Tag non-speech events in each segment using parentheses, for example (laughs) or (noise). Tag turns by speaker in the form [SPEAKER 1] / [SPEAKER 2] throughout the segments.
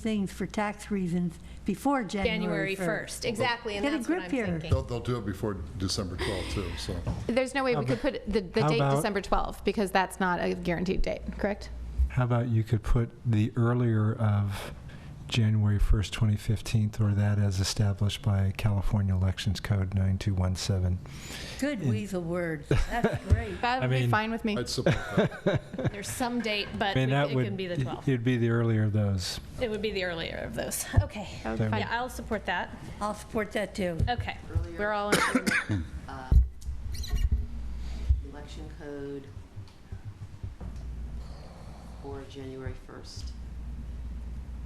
[SPEAKER 1] things for tax reasons before January 1st.
[SPEAKER 2] January 1st, exactly, and
[SPEAKER 1] Get a
[SPEAKER 2] that's what
[SPEAKER 1] grip
[SPEAKER 2] I'm
[SPEAKER 1] here.
[SPEAKER 2] thinking.
[SPEAKER 3] They'll, they'll do it before December 12th, too, so.
[SPEAKER 4] There's no way we could put the, the
[SPEAKER 5] how
[SPEAKER 4] date
[SPEAKER 5] about-
[SPEAKER 4] December 12th, because that's not a guaranteed date, correct?
[SPEAKER 5] How about you could put the earlier of January 1st, 2015, or that as established by California Elections Code 9217?
[SPEAKER 1] Good weasel
[SPEAKER 3] (laughs)
[SPEAKER 1] word. That's great.
[SPEAKER 4] That would be
[SPEAKER 5] mean-
[SPEAKER 4] fine with me.
[SPEAKER 3] I'd support that.
[SPEAKER 2] There's some date, but
[SPEAKER 5] I mean, that
[SPEAKER 2] it
[SPEAKER 5] would.
[SPEAKER 2] could be the
[SPEAKER 5] (laughs)
[SPEAKER 2] 12th.
[SPEAKER 5] It'd be the earlier of those.
[SPEAKER 2] It would be the earlier of those. Okay.
[SPEAKER 4] That would be
[SPEAKER 5] Then-
[SPEAKER 2] Yeah,
[SPEAKER 4] fine.
[SPEAKER 2] I'll support that.
[SPEAKER 1] I'll support that too.
[SPEAKER 2] Okay.
[SPEAKER 4] We're all in agreement.
[SPEAKER 6] uh, election code for January 1st.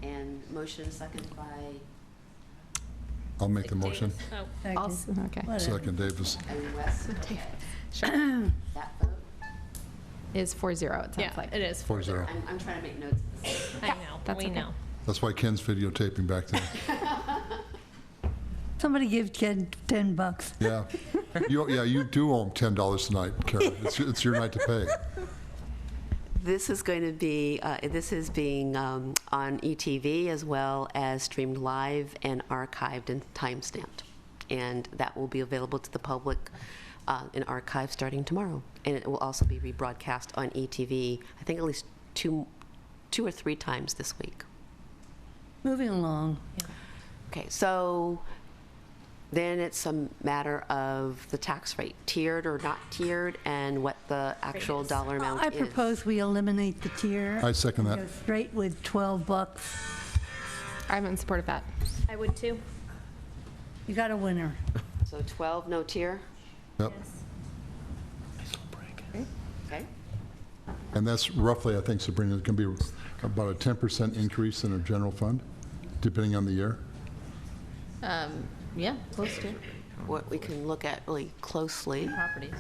[SPEAKER 6] And motion second by
[SPEAKER 3] I'll make the motion.
[SPEAKER 2] Oh,
[SPEAKER 1] Second.
[SPEAKER 4] I'll s- Okay.
[SPEAKER 1] Whatever.
[SPEAKER 3] Second, Davis.
[SPEAKER 6] Owen West. Okay,
[SPEAKER 4] Sure.
[SPEAKER 6] That vote,
[SPEAKER 4] Is 4-0, it sounds
[SPEAKER 2] yeah,
[SPEAKER 4] like.
[SPEAKER 2] it is.
[SPEAKER 3] Four zero.
[SPEAKER 6] I'm, I'm trying to make notes. of this.
[SPEAKER 2] I know,
[SPEAKER 4] that's
[SPEAKER 2] we
[SPEAKER 4] okay.
[SPEAKER 2] know.
[SPEAKER 3] That's why Ken's videotaping back there.
[SPEAKER 1] Somebody give Ken 10 bucks.
[SPEAKER 3] Yeah. You, yeah, you do owe him $10 tonight, Karen. It's, it's your night to pay.
[SPEAKER 6] This is going to be, uh, this is being um, on ETV as well as streamed live and archived and timestamped. And that will be available to the public uh, in archive starting tomorrow. And it will also be rebroadcast on ETV, I think at least two, two or three times this week.
[SPEAKER 1] Moving along.
[SPEAKER 6] Okay, so then it's a matter of the tax rate, tiered or not tiered, and what the actual dollar amount is.
[SPEAKER 1] I propose we eliminate the tier.
[SPEAKER 3] I second that.
[SPEAKER 1] Go straight with 12 bucks.
[SPEAKER 4] I'm in support of that.
[SPEAKER 2] I would too.
[SPEAKER 1] You got a winner.
[SPEAKER 6] So 12, no tier?
[SPEAKER 3] Yep.
[SPEAKER 6] Okay.
[SPEAKER 3] And that's roughly, I think, Sabrina, it can be about a 10% increase in our general fund, depending on the year.
[SPEAKER 7] Um, Yeah, close to
[SPEAKER 6] What we can look at really closely
[SPEAKER 7] properties.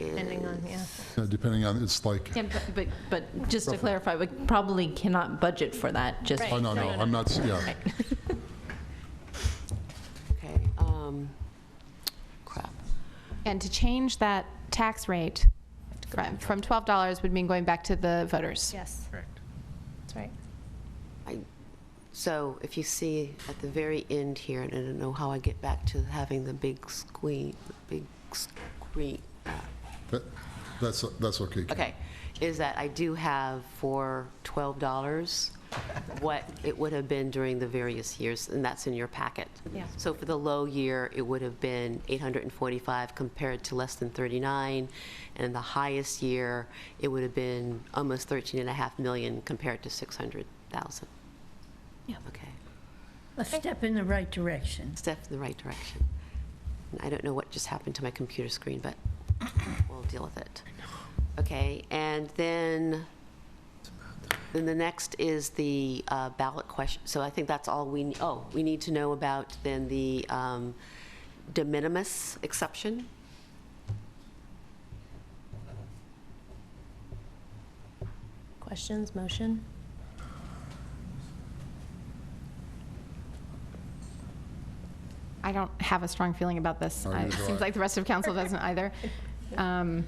[SPEAKER 6] is,
[SPEAKER 2] Depending on, yeah.
[SPEAKER 3] Uh, Depending on, it's like,
[SPEAKER 7] Can- But, but just to clarify, we probably cannot budget for that, just.
[SPEAKER 3] oh, no, no, I'm not, yeah.
[SPEAKER 6] okay, um, crap.
[SPEAKER 4] And to change that tax rate from from $12 would mean going back to the voters.
[SPEAKER 2] Yes. Correct. That's right.
[SPEAKER 6] I- So if you see at the very end here, and I don't know how I get back to having the big squeak, big squeak,
[SPEAKER 3] That- That's, that's okay. Ken.
[SPEAKER 6] Okay, is that I do have for $12 what it would have been during the various years, and that's in your packet.
[SPEAKER 2] Yeah.
[SPEAKER 6] So for the low year, it would have been 845 compared to less than 39, and the highest year, it would have been almost 13 and a half million compared to 600,000.
[SPEAKER 2] Yeah.
[SPEAKER 6] Okay,
[SPEAKER 1] A step in the right direction.
[SPEAKER 6] step in the right direction. And I don't know what just happened to my computer screen, but we'll deal with it. Okay, and then, then the next is the uh, ballot question. So I think that's all we, ne- oh, we need to know about then the um, de minimis exception.
[SPEAKER 2] Questions, motion?
[SPEAKER 4] I don't have a strong feeling about this.
[SPEAKER 3] Oh,
[SPEAKER 4] I- It
[SPEAKER 3] neither do
[SPEAKER 4] seems
[SPEAKER 3] I.
[SPEAKER 4] like the rest of council doesn't either. Um,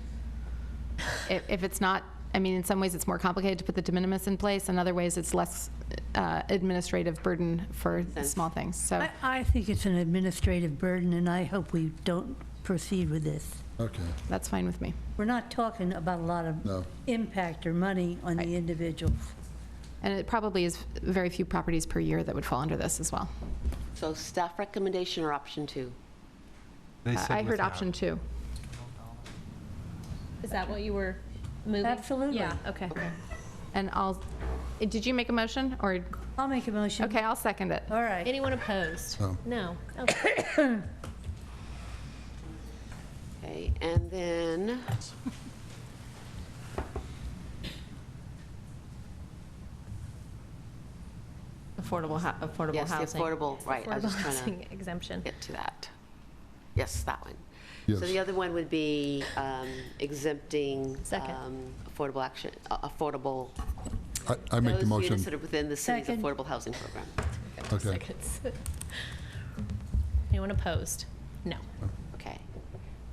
[SPEAKER 4] If if it's not, I mean, in some ways, it's more complicated to put the de minimis in place. In other ways, it's less uh, administrative burden for
[SPEAKER 6] sense.
[SPEAKER 4] small things, so.
[SPEAKER 1] I, I think it's an administrative burden, and I hope we don't proceed with this.
[SPEAKER 3] Okay,
[SPEAKER 4] That's fine with me.
[SPEAKER 1] We're not talking about a lot
[SPEAKER 3] No.
[SPEAKER 1] of impact or money on the individuals.
[SPEAKER 4] And it probably is very few properties per year that would fall under this as well.
[SPEAKER 6] So staff recommendation or option two?
[SPEAKER 5] They
[SPEAKER 4] Uh,
[SPEAKER 5] said
[SPEAKER 4] I heard
[SPEAKER 5] without.
[SPEAKER 4] option two.
[SPEAKER 2] Is that what you were moving?
[SPEAKER 1] Absolutely.
[SPEAKER 2] Yeah, okay.
[SPEAKER 4] And I'll, eh, did you make a motion or,
[SPEAKER 1] I'll make a motion.
[SPEAKER 4] okay, I'll second it.
[SPEAKER 1] All right.
[SPEAKER 2] Anyone opposed?
[SPEAKER 3] No.
[SPEAKER 2] No. Okay.
[SPEAKER 6] Okay, and then.
[SPEAKER 7] Affordable, hou- affordable
[SPEAKER 6] Yes, the
[SPEAKER 7] housing.
[SPEAKER 6] affordable, right. I was
[SPEAKER 2] Affordable
[SPEAKER 6] just trying to
[SPEAKER 2] housing exemption.
[SPEAKER 6] get to that. Yes, that one. So
[SPEAKER 3] Yes.
[SPEAKER 6] the other one would be um, exempting
[SPEAKER 2] Second.
[SPEAKER 6] um, affordable action, uh, affordable.
[SPEAKER 3] I, I make the
[SPEAKER 6] Those
[SPEAKER 3] motion.
[SPEAKER 6] units that are within the city's
[SPEAKER 1] Second.
[SPEAKER 6] affordable housing program.
[SPEAKER 3] Okay.
[SPEAKER 2] Seconds. (laughs) Anyone opposed? No.
[SPEAKER 6] Okay.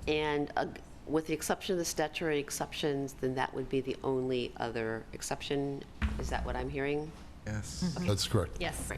[SPEAKER 6] And uh, with the exception of the statutory exceptions, then that would be the only other exception. Is that what I'm hearing?
[SPEAKER 8] Yes.
[SPEAKER 9] That's correct.
[SPEAKER 10] Yes.
[SPEAKER 3] Right.